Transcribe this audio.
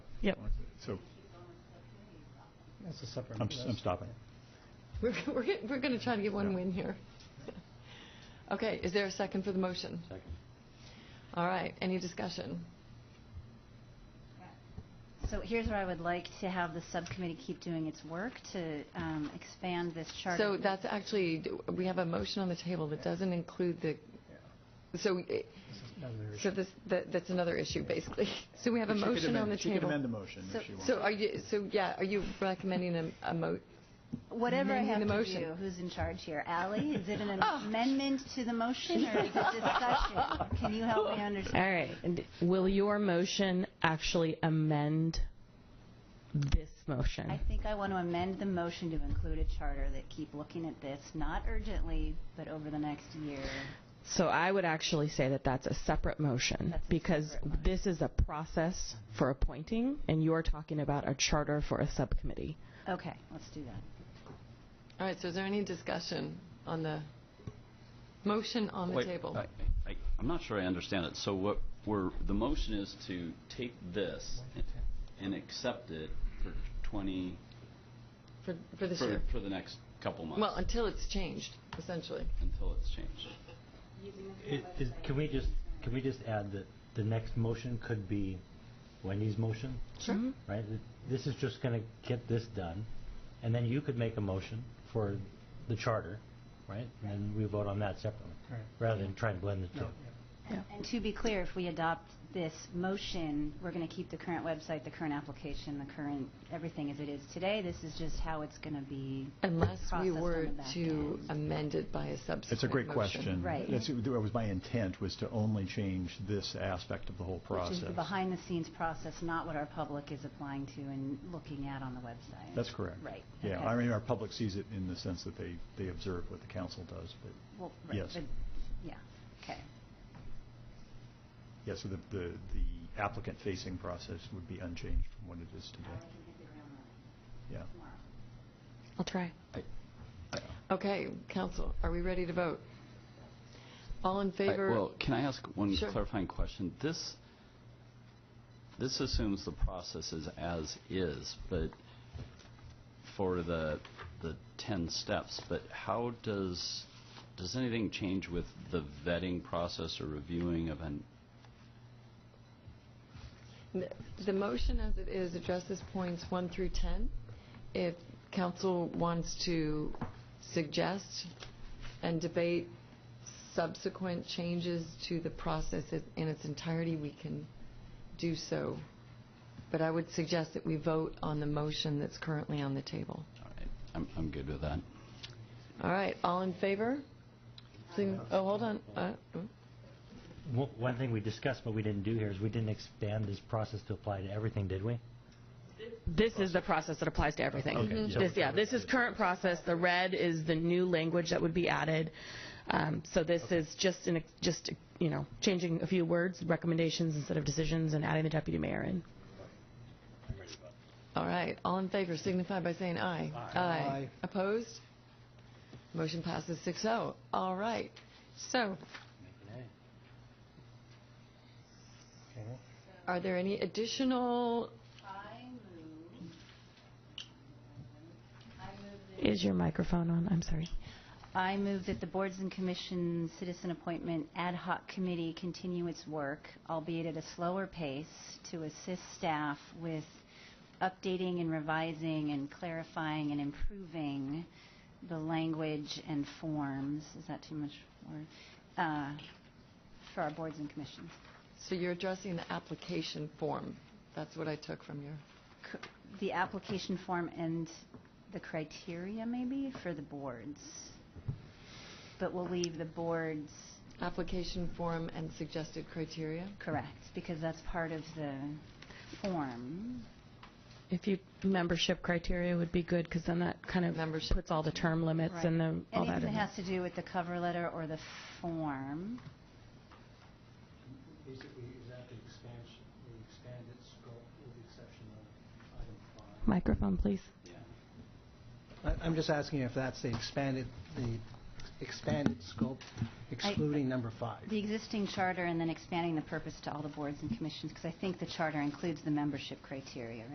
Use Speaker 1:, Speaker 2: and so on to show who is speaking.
Speaker 1: Yep.
Speaker 2: So
Speaker 3: That's a separate.
Speaker 2: I'm, I'm stopping.
Speaker 4: We're, we're, we're going to try to get one win here. Okay, is there a second for the motion?
Speaker 5: Second.
Speaker 4: All right, any discussion?
Speaker 6: So here's where I would like to have the subcommittee keep doing its work to um, expand this charter.
Speaker 4: So that's actually, we have a motion on the table that doesn't include the, so, eh, so this, that- that's another issue, basically. So we have a
Speaker 2: She could
Speaker 4: motion on
Speaker 2: amend-
Speaker 4: the
Speaker 2: She could amend
Speaker 4: table.
Speaker 2: the motion
Speaker 6: So-
Speaker 2: if she wants.
Speaker 4: So are you, so, yeah, are you recommending a, a mo,
Speaker 6: Whatever I have
Speaker 4: Amending the
Speaker 6: to
Speaker 4: motion.
Speaker 6: do, who's in charge here? Ally, is it an
Speaker 4: Oh.
Speaker 6: amendment to the motion or is it discussion? Can you help me
Speaker 1: All
Speaker 6: understand?
Speaker 1: right. And Will your motion actually amend this
Speaker 6: I
Speaker 1: motion?
Speaker 6: think I want to amend the motion to include a charter that keep looking at this, not urgently, but over the next year.
Speaker 1: So I would actually say that that's a separate motion
Speaker 6: That's a
Speaker 1: because
Speaker 6: separate motion.
Speaker 1: this is a process for appointing and you're talking about a charter for a subcommittee.
Speaker 6: Okay, let's do that.
Speaker 4: all right, so is there any discussion on the motion on the
Speaker 5: Wait,
Speaker 4: table?
Speaker 5: I- I- I'm not sure I understand it. So what we're, the motion is to take this and accept it for 20,
Speaker 4: For, for this
Speaker 5: for
Speaker 4: year?
Speaker 5: for the next couple months?
Speaker 4: Well, until it's changed, essentially.
Speaker 5: Until it's changed.
Speaker 3: It- is- Can we just, can we just add that the next motion could be Wendy's motion,
Speaker 4: Sure.
Speaker 1: Mm-hmm.
Speaker 3: right? Th- This is just going to get this done, and then you could make a motion for the charter, right? And then we vote on that separately, rather than try and blend the two.
Speaker 6: And to be clear, if we adopt this motion, we're going to keep the current website, the current application, the current, everything as it is today. This is just how it's going to be.
Speaker 4: Unless we
Speaker 6: processed on
Speaker 4: were
Speaker 6: the back
Speaker 4: to
Speaker 6: end.
Speaker 4: amend it by a subsequent motion.
Speaker 2: It's a great question.
Speaker 6: Right.
Speaker 2: That's, that was my intent, was to only change this aspect of the whole
Speaker 6: Which
Speaker 2: process.
Speaker 6: is the behind-the-scenes process, not what our public is applying to and looking at on the website.
Speaker 2: That's correct.
Speaker 6: Right.
Speaker 2: Yeah,
Speaker 6: Okay.
Speaker 2: I mean, our public sees it in the sense that they, they observe what the council does, but,
Speaker 6: Well, right,
Speaker 2: yes.
Speaker 6: but- Yeah, okay.
Speaker 2: yeah, so the, the the applicant-facing process would be unchanged from what it is today. Yeah.
Speaker 4: I'll try.
Speaker 5: I- I-
Speaker 4: Okay, council, are we ready to vote? All in
Speaker 5: I-
Speaker 4: favor?
Speaker 5: Well, can I ask one
Speaker 4: Sure.
Speaker 5: clarifying question? This, this assumes the process is as is, but for the, the 10 steps, but how does, does anything change with the vetting process or reviewing of an,
Speaker 4: N- The motion as it is addresses points one through 10. If council wants to suggest and debate subsequent changes to the process i- in its entirety, we can do so. But I would suggest that we vote on the motion that's currently on the table.
Speaker 5: all right, I'm, I'm good with that.
Speaker 4: All right, all in favor? Sing- Oh, hold on. Uh, mm.
Speaker 3: One one thing we discussed, but we didn't do here, is we didn't expand this process to apply to everything, did we?
Speaker 1: This is the process that applies to everything. Mm-hmm.
Speaker 2: Okay, so-
Speaker 1: This, yeah, this is current process. The red is the new language that would be added. Um, so this is just an, ex- just, you know, changing a few words, recommendations instead of decisions and adding the deputy mayor in.
Speaker 4: All right, all in favor signify by saying aye. Aye. Opposed? Motion passes 6-0. All right, so are there any additional,
Speaker 6: I move,
Speaker 1: Is your microphone on? I'm sorry.
Speaker 6: I move that the boards and commissions citizen appointment ad hoc committee continue its work, albeit at a slower pace, to assist staff with updating and revising and clarifying and improving the language and forms, is that too much word? Uh, For our boards and commissions.
Speaker 4: so you're addressing the application form. That's what I took from your,
Speaker 6: c- the application form and the criteria maybe for the boards. But we'll leave the boards
Speaker 4: application form and suggested criteria.
Speaker 6: correct because that's part of the form.
Speaker 1: If you, membership criteria would be good because then that kind of
Speaker 4: Membership.
Speaker 1: puts all the term limits and the, all Oh, that
Speaker 6: Anything
Speaker 1: in.
Speaker 6: that
Speaker 1: there.
Speaker 6: has to do with the cover letter or the form.
Speaker 7: basically is that the expansion, the expanded scope with the exception of item five.
Speaker 1: Microphone, please.
Speaker 7: I- I'm just asking if that's the expanded, the expanded scope excluding number five.
Speaker 6: The existing charter and then expanding the purpose to all the boards and commissions, because I think the charter includes the membership criteria,